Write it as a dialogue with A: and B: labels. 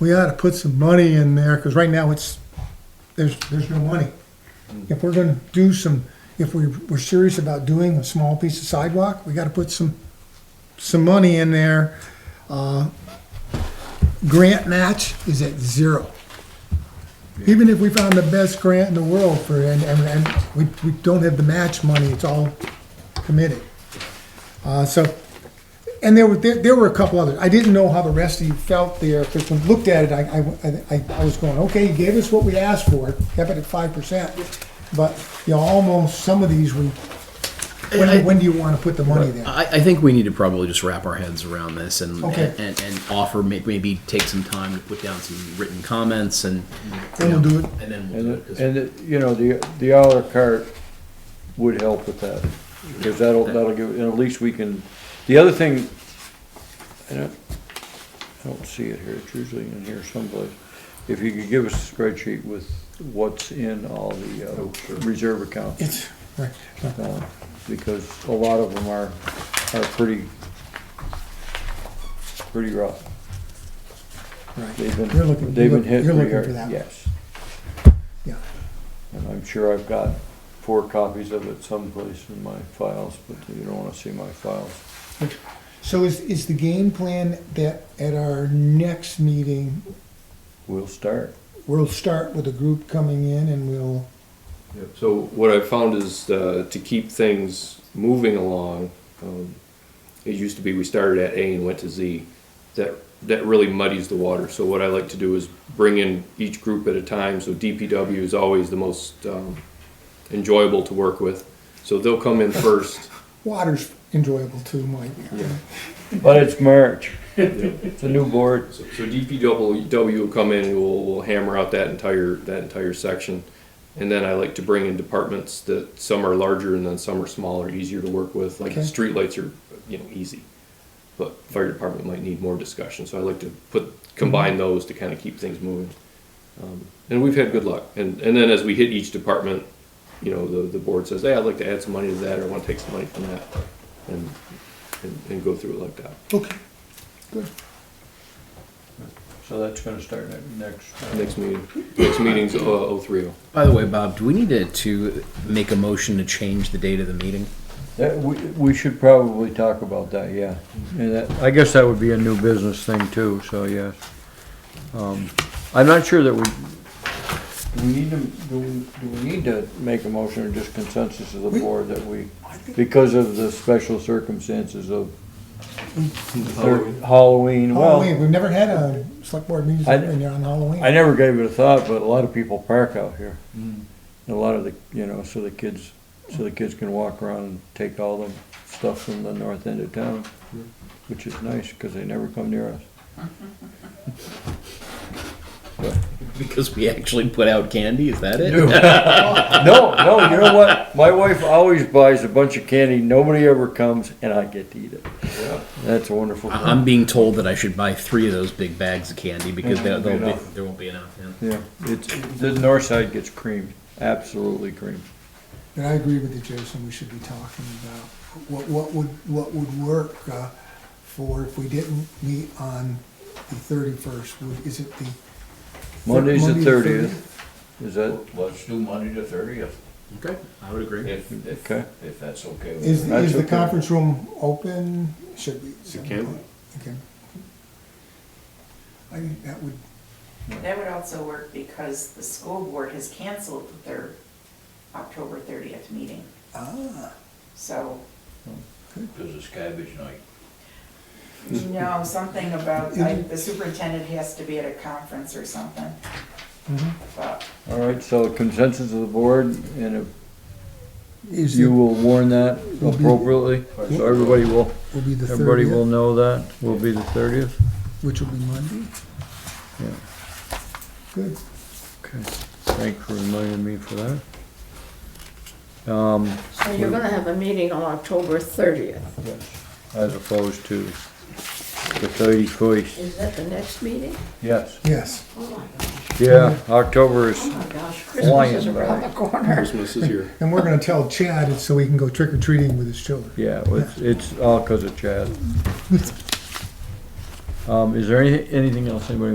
A: we ought to put some money in there, because right now it's, there's, there's no money. If we're gonna do some, if we, we're serious about doing a small piece of sidewalk, we gotta put some, some money in there. Uh, Grant match is at zero. Even if we found the best grant in the world for, and, and, and we, we don't have the match money, it's all committed. Uh, so, and there were, there, there were a couple others. I didn't know how the rest of you felt there, because when I looked at it, I, I, I, I was going, okay, you gave us what we asked for, kept it at five percent. But, you know, almost, some of these, we,
B: I-
A: when, when do you wanna put the money there?
B: I, I think we need to probably just wrap our heads around this and
A: Okay.
B: and, and offer may- maybe take some time to put down some written comments and
A: Then we'll do it.
B: and then we'll
C: And,
B: do it.
C: it-
B: 'cause-
C: and, it- you know, the, the à la carte would help with that, because that'll, that'll give, and at least we can, the other thing, I don't, I don't see it here, it's usually in here someplace. If you could give us a spreadsheet with what's in all the, uh, reserve accounts,
A: It's, right,
C: uh, because a lot of them are, are pretty, pretty rough.
A: right,
C: They've
A: You're looking-
C: been, they've
A: you're
C: been hit
A: looking
C: pretty
A: for
C: hard,
A: that one.
C: yes.
A: yeah.
C: And I'm sure I've got four copies of it someplace in my files, but you don't wanna see my files.
A: So is, is the game plan that at our next meeting,
C: We'll start.
A: we'll start with a group coming in and we'll,
D: Yep. So what I've found is uh, to keep things moving along. Um, it used to be we started at A and went to Z. That that really muddies the water. So what I like to do is bring in each group at a time. So DPW is always the most um, enjoyable to work with. So they'll come in first.
A: water's enjoyable too, Mike.
C: But it's March. It's a new board.
D: So, so DPW will come in and we'll, we'll hammer out that entire, that entire section. And then I like to bring in departments that some are larger and then some are smaller, easier to work with, like the
A: Okay.
D: streetlights are, you know, easy. But fire department might need more discussion, so I like to put, combine those to kind of keep things moving. Um, And we've had good luck, and, and then as we hit each department, you know, the, the board says, hey, I'd like to add some money to that, or I wanna take some money from that, and, and, and go through it like that.
A: Okay, good.
C: So that's gonna start ne- next. uh,
D: Next meeting, next meeting's oh three oh.
B: By the way, Bob, do we need to, to make a motion to change the date of the meeting?
C: That, we, we should probably talk about that, yeah. And that, I guess that would be a new business thing too, so yes. Um, I'm not sure that we, do we need to, do we, do we need to make a motion or just consensus of the board that we, because of the special circumstances of Halloween,
A: Halloween,
C: well,
A: we've never had a select board meeting
C: I-
A: in there on
C: I
A: Halloween.
C: never gave it a thought, but a lot of people park out here. And a lot of the, you know, so the kids, so the kids can walk around and take all the stuff from the north end of town, which is nice, because they never come near us.
B: Because we actually put out candy, is that it?
C: No, no, you know what? My wife always buys a bunch of candy, nobody ever comes, and I get to eat it. That's a wonderful
B: I- I'm
C: thing.
B: being told that I should buy three of those big bags of candy because there,
C: Yeah, won't be
B: there'll be,
C: enough.
B: there won't be enough. Yeah.
C: Yeah, it's, the north side gets creamed, absolutely creamed.
A: But I agree with you, Jason, we should be talking about what, what would, what would work uh, for if we didn't meet on the thirty-first, is it the?
C: Monday's the
A: Monday
C: thirtieth, is that,
E: Let's do Monday the thirtieth,
B: Okay, I would agree.
E: if, if,
C: okay?
E: if that's okay. with
A: Is,
C: That's
A: is the
C: okay.
A: conference room open? Should be.
D: It can be.
A: Okay. I think that would,
F: That would also work because the school board has canceled their October thirtieth meeting,
A: ah,
F: so,
E: Because it's cabbage night.
F: you know, something about, like, the superintendent has to be at a conference or something. But,
C: All right, so consensus of the board, and if
A: is,
C: you
A: it-
C: will warn that appropriately, so everybody will,
A: will be the
C: everybody will
A: thirtieth,
C: know that, will be the thirtieth.
A: which will be Monday?
C: Yeah.
A: Good.
C: Okay, thanks for reminding me for that.
G: So you're gonna have a meeting on October thirtieth.
C: As opposed to the thirty-first.
G: Is that the next meeting?
C: Yes.
A: Yes.
G: Oh my gosh,
C: Yeah, October is,
G: oh my gosh, Christmas
C: Flying
G: is around the corner.
D: Christmas is here.
A: And we're gonna tell Chad it's so he can go trick or treating with his children.
C: yeah, it's, it's all because of Chad. Um, is there any, anything else anybody